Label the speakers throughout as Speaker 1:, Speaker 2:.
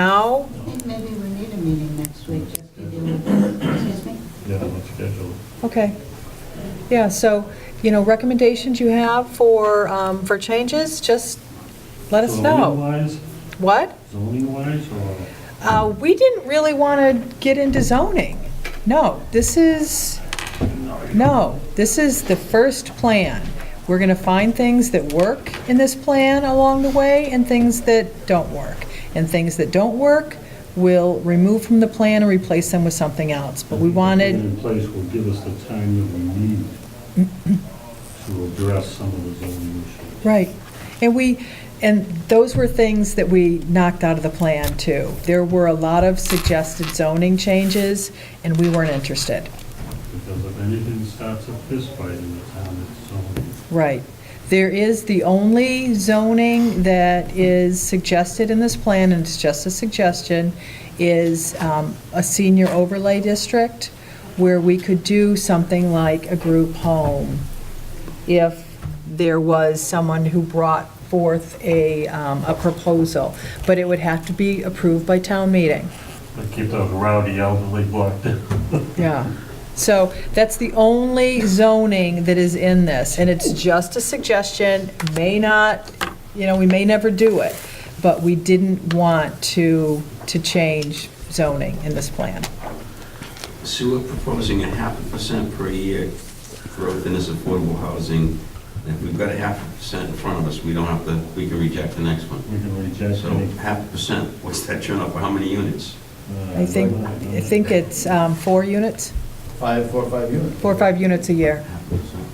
Speaker 1: now?
Speaker 2: I think maybe we need a meeting next week, just to deal with, excuse me?
Speaker 3: Yeah, let's schedule.
Speaker 1: Okay. Yeah, so, you know, recommendations you have for, um, for changes, just let us know.
Speaker 3: Zoning-wise,
Speaker 1: What?
Speaker 3: zoning-wise, or,
Speaker 1: Uh, We didn't really want to get into zoning. No, this is, no, this is the first plan. We're going to find things that work in this plan along the way and things that don't work. And things that don't work, we'll remove from the plan and replace them with something else. But we
Speaker 3: Put it
Speaker 1: wanted,
Speaker 3: In place will give us the time that we need to address some of the zoning issues.
Speaker 1: right. And we, and those were things that we knocked out of the plan, too. There were a lot of suggested zoning changes, and we weren't interested.
Speaker 3: Because if anything starts a fistfight in the town, it's zoning.
Speaker 1: Right. There is the only zoning that is suggested in this plan, and it's just a suggestion, is um, a senior overlay district where we could do something like a group home if there was someone who brought forth a, um, a proposal. But it would have to be approved by town meeting.
Speaker 3: But keep those rowdy elderly blocked in.
Speaker 1: Yeah. So that's the only zoning that is in this, and it's just a suggestion, may not, you know, we may never do it, but we didn't want to, to change zoning in this plan.
Speaker 4: So we're proposing a half a percent per year growth in this affordable housing. And If we've got a half a percent in front of us, we don't have to, we can reject the next one.
Speaker 3: We can reject
Speaker 4: So
Speaker 3: any.
Speaker 4: half a percent, what's that turn up, how many units?
Speaker 3: uh,
Speaker 1: I think, I think it's um, four units,
Speaker 5: Five, four, five units.
Speaker 1: four or five units a year.
Speaker 4: Half a percent.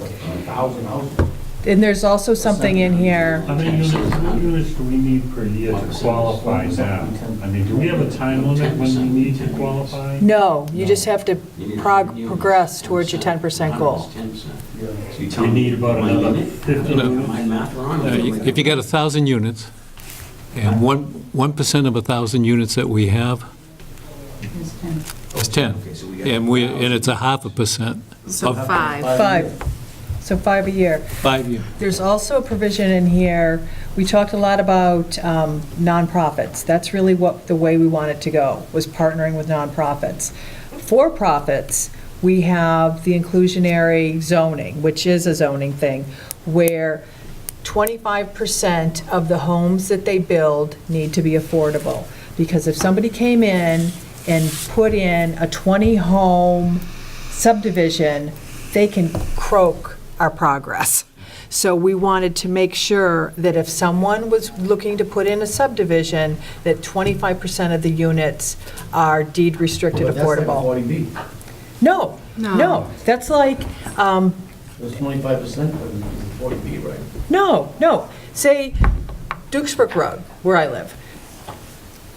Speaker 5: Like a Thousand houses.
Speaker 1: And there's also something in here,
Speaker 3: How many units, how many units do we need per year to qualify now? I mean, do we have a time limit when we need to qualify?
Speaker 1: no, you just have to
Speaker 4: You need
Speaker 1: prog-
Speaker 4: units,
Speaker 1: progress towards your 10%
Speaker 4: 10%.
Speaker 1: goal.
Speaker 4: 10%.
Speaker 5: Yeah.
Speaker 4: So you tell
Speaker 3: We
Speaker 4: me
Speaker 3: need about
Speaker 4: one
Speaker 3: another
Speaker 4: unit?
Speaker 3: 50
Speaker 6: No.
Speaker 3: units.
Speaker 4: My math wrong?
Speaker 6: Uh, If you got a 1,000 units, and 1, 1% of a 1,000 units that we have
Speaker 2: Yes, Tim.
Speaker 6: is 10,
Speaker 4: Okay, so we got
Speaker 6: and we, and it's a half a percent,
Speaker 7: So
Speaker 6: Of-
Speaker 7: five.
Speaker 1: Five. so five a year.
Speaker 6: five years.
Speaker 1: There's also a provision in here, we talked a lot about um, nonprofits. That's really what, the way we wanted to go, was partnering with nonprofits. For-profits, we have the inclusionary zoning, which is a zoning thing, where 25% of the homes that they build need to be affordable. Because if somebody came in and put in a 20-home subdivision, they can croak our progress. So we wanted to make sure that if someone was looking to put in a subdivision, that 25% of the units are deed restricted
Speaker 5: But that's like a
Speaker 1: affordable.
Speaker 5: 40B.
Speaker 1: No, no,
Speaker 7: No.
Speaker 1: that's like, um,
Speaker 5: That's 25% of the 40B, right?
Speaker 1: No, no. Say Duxbrook Road, where I live.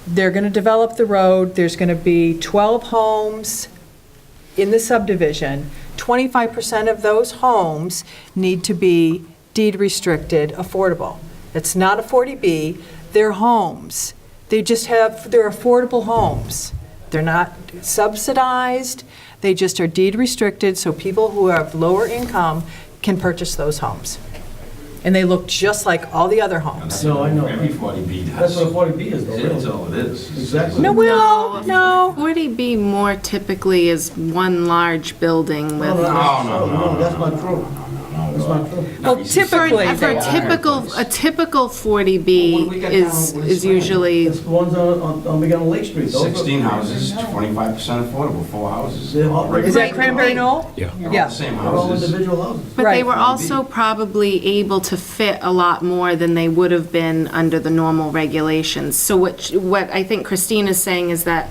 Speaker 1: They're going to develop the road, there's going to be 12 homes in the subdivision. 25% of those homes need to be deed restricted affordable. It's not a 40B, they're homes. They just have, they're affordable homes. They're not subsidized, they just are deed restricted, so people who have lower income can purchase those homes. And they look just like all the other homes.
Speaker 5: No, I know.
Speaker 4: Every 40B does.
Speaker 5: That's what a 40B is, though,
Speaker 4: That's
Speaker 5: really.
Speaker 4: all it is.
Speaker 5: Exactly.
Speaker 1: No, well,
Speaker 7: No.
Speaker 1: no.
Speaker 7: 40B more typically is one large building with.
Speaker 4: No, no, no,
Speaker 5: No, that's
Speaker 4: no,
Speaker 5: not true. That's not true.
Speaker 1: Well,
Speaker 7: For
Speaker 1: typically,
Speaker 7: an- for
Speaker 1: they
Speaker 7: a
Speaker 1: are.
Speaker 7: typical, a typical
Speaker 4: Well, when we
Speaker 7: 40B
Speaker 4: get
Speaker 7: is,
Speaker 4: down,
Speaker 7: is
Speaker 4: we're-
Speaker 7: usually,
Speaker 5: It's the ones on, on, on Big Island Lake Street. Those are-
Speaker 4: 16 houses, 25% affordable, four houses.
Speaker 5: They're all-
Speaker 1: Is that
Speaker 7: Right.
Speaker 1: Cranberry Knoll?
Speaker 6: Yeah.
Speaker 4: They're all
Speaker 1: Yeah.
Speaker 4: the same
Speaker 5: They're all
Speaker 4: houses.
Speaker 5: individual houses.
Speaker 7: but they
Speaker 1: Right.
Speaker 7: were also probably able to fit a lot more than they would have been under the normal regulations. So what, sh- what I think Christine is saying is that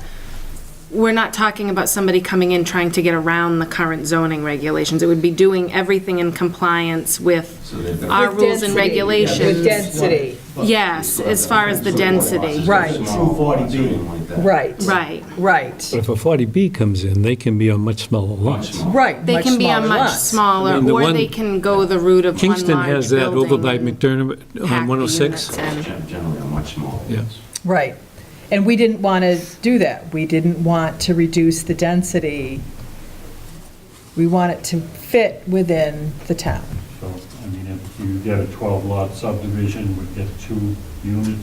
Speaker 7: we're not talking about somebody coming in trying to get around the current zoning regulations. It would be doing everything in compliance with
Speaker 4: So they've got-
Speaker 7: our
Speaker 1: With
Speaker 7: rules
Speaker 1: density,
Speaker 7: and
Speaker 1: yeah. With
Speaker 7: regulations.
Speaker 1: density.
Speaker 7: Yes, as far as the density.
Speaker 1: Right.
Speaker 4: Small lots, something like that.
Speaker 1: Right,
Speaker 7: Right.
Speaker 1: right,
Speaker 6: But if a 40B comes in, they can be on much smaller
Speaker 4: Lots
Speaker 6: lots.
Speaker 4: small.
Speaker 1: right.
Speaker 7: They can be on
Speaker 1: smaller
Speaker 7: much
Speaker 1: lots.
Speaker 7: smaller,
Speaker 6: I mean, the
Speaker 7: or
Speaker 6: one-
Speaker 7: they can go the route of one large building.
Speaker 6: Kingston has that over by
Speaker 7: and
Speaker 6: McDermott
Speaker 7: pack the
Speaker 6: on 106.
Speaker 7: units in.
Speaker 4: Gen- Generally, are much smaller.
Speaker 6: Yeah.
Speaker 4: lots.
Speaker 1: Right. And we didn't want to do that. We didn't want to reduce the density. We want it to fit within the town.
Speaker 3: So, I mean, if you get a 12-lot subdivision, we get two units